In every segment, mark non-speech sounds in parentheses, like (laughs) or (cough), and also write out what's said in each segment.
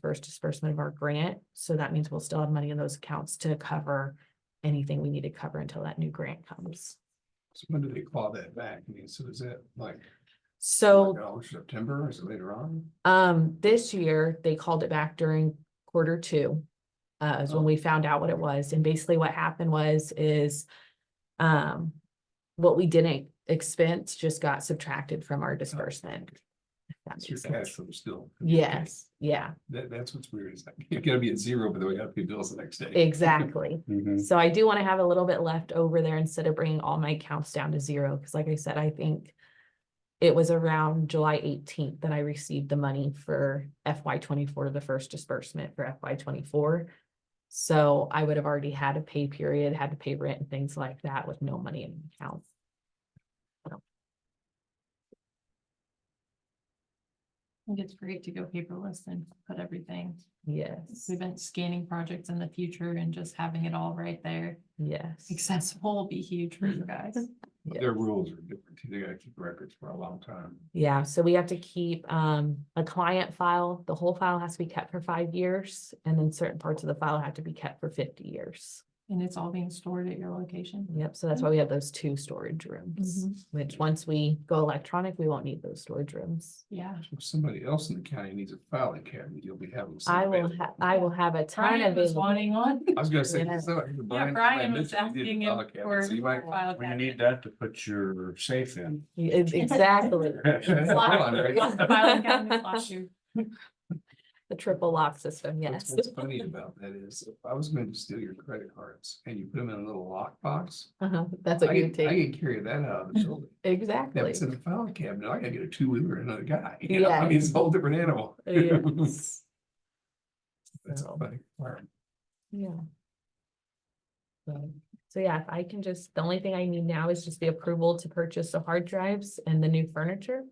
first disbursement of our grant, so that means we'll still have money in those accounts to cover anything we need to cover until that new grant comes. So when do they claw that back? I mean, so is it like? So like, oh, September, or is it later on? Um, this year, they called it back during quarter two. Uh, is when we found out what it was, and basically what happened was, is. Um, what we didn't expense just got subtracted from our disbursement. If that So your makes cash sense. flow still. Yes, yeah, That, that's what's weird. It's like, (laughs) you're gonna be at zero, but then we gotta pay bills the next day. exactly. Mm-hmm. So I do want to have a little bit left over there instead of bringing all my accounts down to zero, because like I said, I think. It was around July eighteenth that I received the money for FY twenty-four, the first disbursement for FY twenty-four. So I would have already had a pay period, had to pay rent and things like that with no money in the account. I think it's great to go paperless and put everything, Yes, prevent scanning projects in the future and just having it all right there. (laughs) yes. Accessible will be huge for you (laughs) guys. But Their rules are different. too. They gotta keep records for a long time. Yeah, so we have to keep um a client file, the whole file has to be kept for five years, and then certain parts of the file have to be kept for fifty years. And it's all being stored at your location. Yep, so that's why we have those two storage rooms, Mm-hmm. which once we go electronic, we won't need those storage rooms. Yeah. If somebody else in the county needs a filing cabinet, you'll be having. some I will available. ha- I will have a ton Brian was available. wanting (laughs) one. I was gonna say. Yeah. so, Yeah, Brian- Brian was mentioned he asking needed a him file cabinet, for. so you might- file Well, you cabinet. need that to put your safe in. Ex- e-, (laughs) Exactly, (laughs) Hold on, right? Yeah. Filing cabinet last year. the triple lock system, What's yes. what's funny about that is, if I was going to steal your credit cards and you put them in a little lockbox, (laughs) Uh-huh, That's I what you would can, I take, can carry that out of the building. If exactly. it's in the file cabinet, I gotta get a two wheeler and another guy, you know, I mean, it's a whole different animal. Yes. (laughs) That's So, a funny requirement. Yeah. So- So yeah, if I can just, the only thing I need now is just the approval to purchase the hard drives and the new furniture.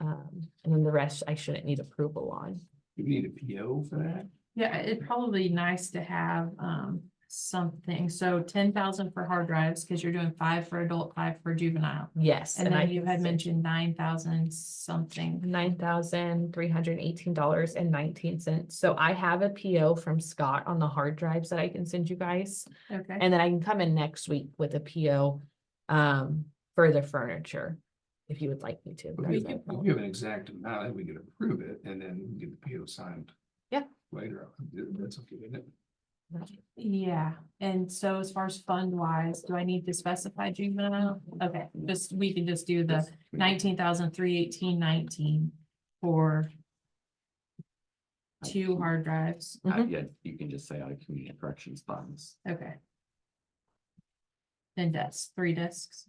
Um, and then the rest I shouldn't need approval on. Do we need a PO for that? Yeah, it'd probably be nice to have um something, so ten thousand for hard drives, because you're doing five for adult, five for juvenile. Yes. And I then you can had send- mentioned nine thousand something. nine thousand three hundred eighteen dollars and nineteen cents. So I have a PO from Scott on the hard drives that I can send you guys. Okay. And then I can come in next week with a PO um for the furniture, if you would like me to. If That's we no give- if we problem. give an exact amount, then we can approve it and then we get the PO signed. Yeah. Later, on. that's okay, isn't it? Yeah, and so as far as fund wise, do I need to specify juvenile? Okay, just, we can just do the nineteen thousand three eighteen nineteen for two hard drives. Uh, Mhm. Yeah, you can just say out of community corrections funds. Okay. Then desks, three desks.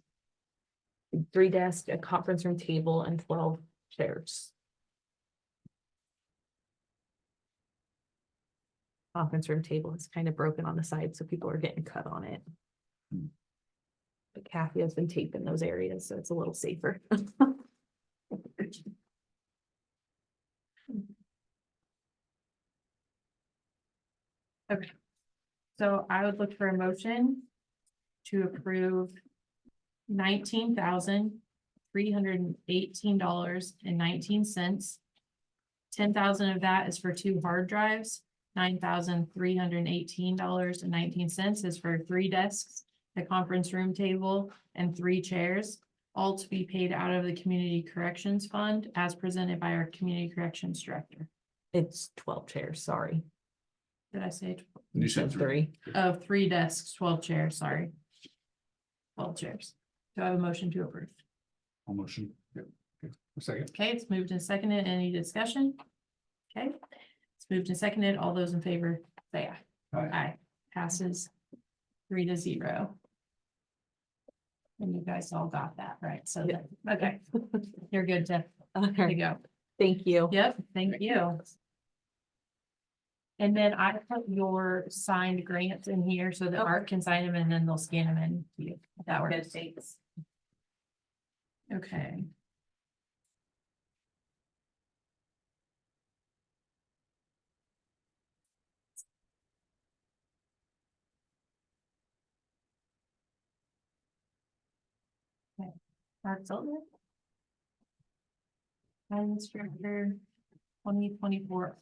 Three desks, a conference room table and twelve chairs. Conference room table is kind of broken on the side, so people are getting cut on it. Hmm. But Kathy has been taping those areas, so it's a little safer. So I would look for a motion to approve nineteen thousand three hundred and eighteen dollars and nineteen cents. Ten thousand of that is for two hard drives, nine thousand three hundred and eighteen dollars and nineteen cents is for three desks, the conference room table, and three chairs, all to be paid out of the Community Corrections Fund as presented by our Community Corrections Director. It's twelve chairs, sorry. Did I say it? You said three. Of three desks, twelve chairs, sorry. Twelve chairs. Do I have a motion to approve? I'll motion. Second, Okay, it's moved and seconded. Any discussion? Okay, it's moved and seconded. All those in favor, say aye. Aye. Passes three to zero. And you guys all got that, right? So, Yeah. that- okay, you're good to, to Okay, go. thank you. Yep, thank you. And then I put your signed grants in here so that Art can sign them and then they'll scan them in. to you, if That works. Okay. Okay, Art's on there. Guidance Director, twenty twenty-four